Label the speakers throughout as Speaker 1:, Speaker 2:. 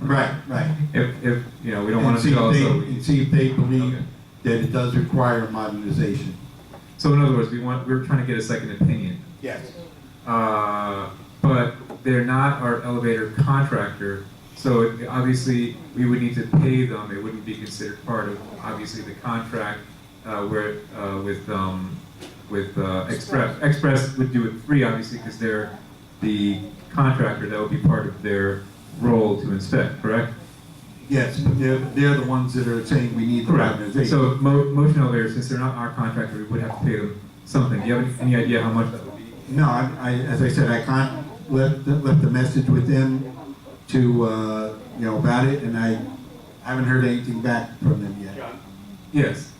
Speaker 1: Right, right.
Speaker 2: If, if, you know, we don't
Speaker 1: And
Speaker 2: want
Speaker 1: see
Speaker 2: to
Speaker 1: if
Speaker 2: go,
Speaker 1: they-
Speaker 2: so, we-
Speaker 1: And see if they believe
Speaker 2: Okay.
Speaker 1: that it does require modernization.
Speaker 2: so in other words, we want, we're trying to get a second opinion.
Speaker 1: Yes.
Speaker 2: Uh, but they're not our elevator contractor, so it- obviously, we would need to pay them, it wouldn't be considered part of, obviously, the contract, uh, where, uh, with, um, with, uh, Express, Express would do it free, obviously, because they're the contractor, that would be part of their role to inspect, correct?
Speaker 1: Yes, but they're, they're the ones that are saying we need the
Speaker 2: Correct.
Speaker 1: modernization.
Speaker 2: So mo- motion elevators, since they're not our contractor, we would have to pay them something. Do you have any any idea how much that would be?
Speaker 1: No, I, I, as I said, I can't, left, left the message with them to, uh, you know, about it, and I haven't heard anything back from them yet.
Speaker 3: John,
Speaker 2: Yes,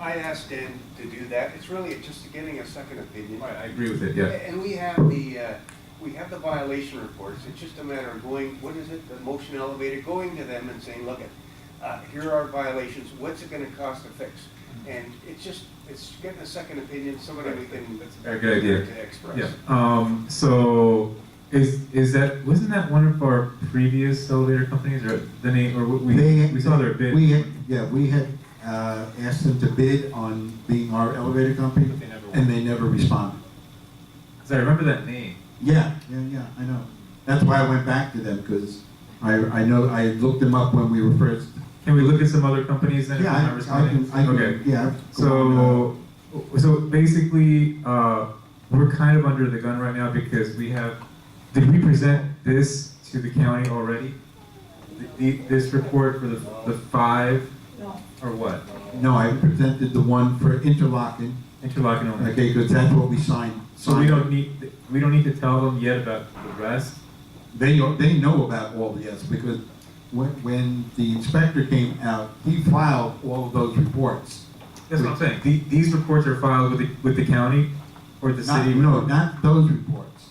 Speaker 3: I asked Dan to do that, it's really just getting a second opinion.
Speaker 2: I agree with it, yeah.
Speaker 3: And we have the, uh, we have the violation reports, it's just a matter of going, what is it, the motion elevator, going to them and saying, look, it, uh, here are violations, what's it gonna cost to fix?
Speaker 2: Mm-hmm.
Speaker 3: And it's just, it's getting a second opinion, somebody we can.
Speaker 2: a good idea.
Speaker 3: To
Speaker 2: Yeah,
Speaker 3: express.
Speaker 2: um, so is, is that, wasn't that one of our previous elevator companies or the name, or we,
Speaker 1: They-
Speaker 2: we saw their bid?
Speaker 1: We had, yeah, we had, uh, asked them to bid on being our elevator company,
Speaker 2: But they never
Speaker 1: and they never responded.
Speaker 2: Cause I remember that name.
Speaker 1: Yeah, yeah, yeah, I know. That's why I went back to them, because I, I know, I looked them up when we were first.
Speaker 2: Can we look at some other companies then? if
Speaker 1: Yeah, I,
Speaker 2: they're not
Speaker 1: I can,
Speaker 2: responding?
Speaker 1: I
Speaker 2: Okay.
Speaker 1: can, yeah. go on,
Speaker 2: So, so basically, uh, we're kind of under the gun right now because we have, did we present this to the county already? The, the- this report for the, the five, or what?
Speaker 1: uh, No, I presented the one for interlocking,
Speaker 2: Interlocking only.
Speaker 1: okay, because that's what we signed.
Speaker 2: So we don't need, we don't need to tell them yet about the rest?
Speaker 1: They, are- they know about all the yes, because when, when the inspector came out, he filed all of those reports.
Speaker 2: That's what I'm saying, The- these reports are filed with the, with the county or the
Speaker 1: Not,
Speaker 2: city?
Speaker 1: no, not those reports.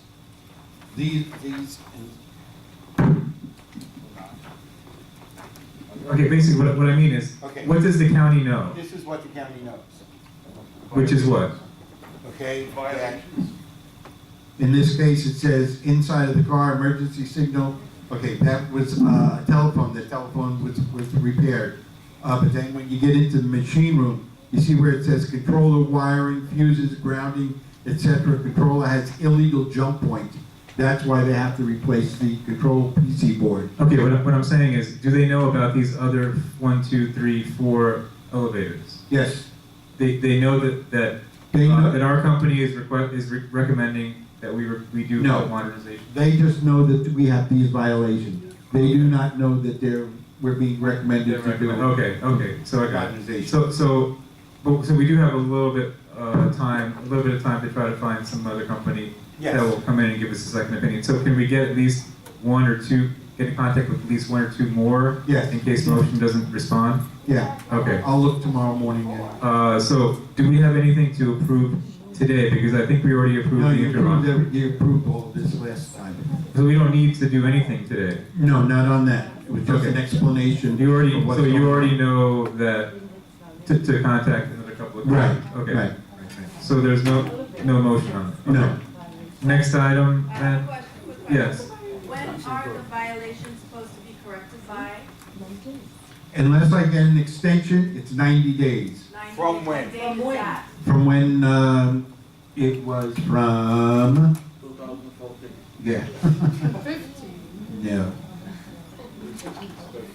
Speaker 1: These, these,
Speaker 2: Okay, basically, what, what I mean is,
Speaker 4: Okay.
Speaker 2: what does the county know?
Speaker 4: This is what the county knows,
Speaker 2: Which is what?
Speaker 4: okay? That-
Speaker 3: Violations,
Speaker 1: in this case, it says inside of the car, emergency signal. Okay, that was uh, a telephone, the telephone was, was repaired. Uh, but then when you get into the machine room, you see where it says controller wiring, fuses, grounding, et cetera. Controller has illegal jump point. That's why they have to replace the control PC board.
Speaker 2: Okay, what, I- what I'm saying is, do they know about these other one, two, three, four elevators?
Speaker 1: Yes,
Speaker 2: They, they know that, that,
Speaker 1: They
Speaker 2: uh,
Speaker 1: know-
Speaker 2: that our company is request, is re- recommending that we, re- we do
Speaker 1: No.
Speaker 2: modernization?
Speaker 1: they just know that we have these violations. They do not know that they're, we're being recommended to do.
Speaker 2: Okay, okay, so I got it.
Speaker 1: Modernization.
Speaker 2: So, so, but, so we do have a little bit, uh, time, a little bit of time to try to find some other company that
Speaker 4: Yes.
Speaker 2: will come in and give us a second opinion. So can we get at least one or two, get in contact with at least one or two more?
Speaker 1: Yes.
Speaker 2: In case motion doesn't respond?
Speaker 1: Yeah,
Speaker 2: Okay.
Speaker 1: I'll look tomorrow morning at
Speaker 2: Uh, so, do we have anything to approve today? Because I think we already approved
Speaker 1: No,
Speaker 2: the
Speaker 1: you approved,
Speaker 2: interim.
Speaker 1: every- you approved all this last time.
Speaker 2: So we don't need to do anything today.
Speaker 1: No, not on that. It was just an
Speaker 2: Okay.
Speaker 1: explanation.
Speaker 2: You already,
Speaker 1: of what's
Speaker 2: so you
Speaker 1: going
Speaker 2: already
Speaker 1: on.
Speaker 2: know that to, to contact another couple of.
Speaker 1: Right,
Speaker 2: Okay.
Speaker 1: right.
Speaker 2: So there's no, no motion on it?
Speaker 1: No.
Speaker 2: Okay. Next item,
Speaker 5: I have a
Speaker 2: then?
Speaker 5: question, quick question.
Speaker 2: Yes.
Speaker 5: When are the violations supposed to be corrected by?
Speaker 1: Unless I get an extension, it's ninety days.
Speaker 5: 90
Speaker 4: From
Speaker 5: days?
Speaker 4: when?
Speaker 5: What date is that?
Speaker 1: From when, um, it was from, yeah. No.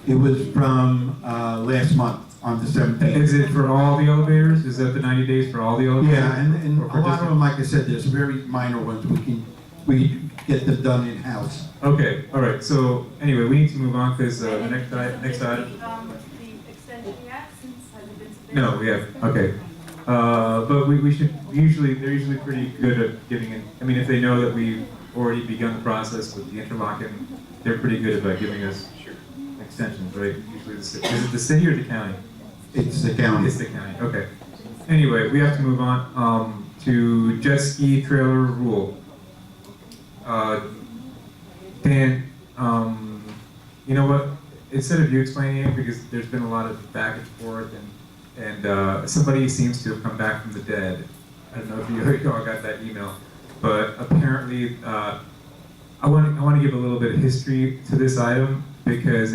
Speaker 1: It was from, uh, last month, on the seventeenth.
Speaker 2: Is it for all the elevators? Is that the ninety days for all the elevators?
Speaker 1: Yeah, and, and
Speaker 2: Or
Speaker 1: a
Speaker 2: for
Speaker 1: lot
Speaker 2: just-
Speaker 1: of them, like I said, there's very minor ones. We can, we get them done in-house.
Speaker 2: Okay, all right, so anyway, we need to move on, because, uh,
Speaker 5: And
Speaker 2: next
Speaker 5: has
Speaker 2: i-
Speaker 5: it
Speaker 2: next
Speaker 5: been
Speaker 2: item.
Speaker 5: The um, the extension yet, since, has it been submitted?
Speaker 2: No, we have, okay. Uh, but we, we should, usually, they're usually pretty good at giving in, I mean, if they know that we've already begun the process with the interlocking, they're pretty good about giving us extensions, right? Usually the city, is it the city or the county?
Speaker 1: It's the county.
Speaker 2: It's the county, okay. Anyway, we have to move on, um, to jet ski trailer rule. Uh, Dan, um, you know what, instead of you explaining it, because there's been a lot of back and forth and, and, uh, somebody seems to have come back from the dead. I don't know if you all got that email, but apparently, uh, I want, I want to give a little bit of history to this item because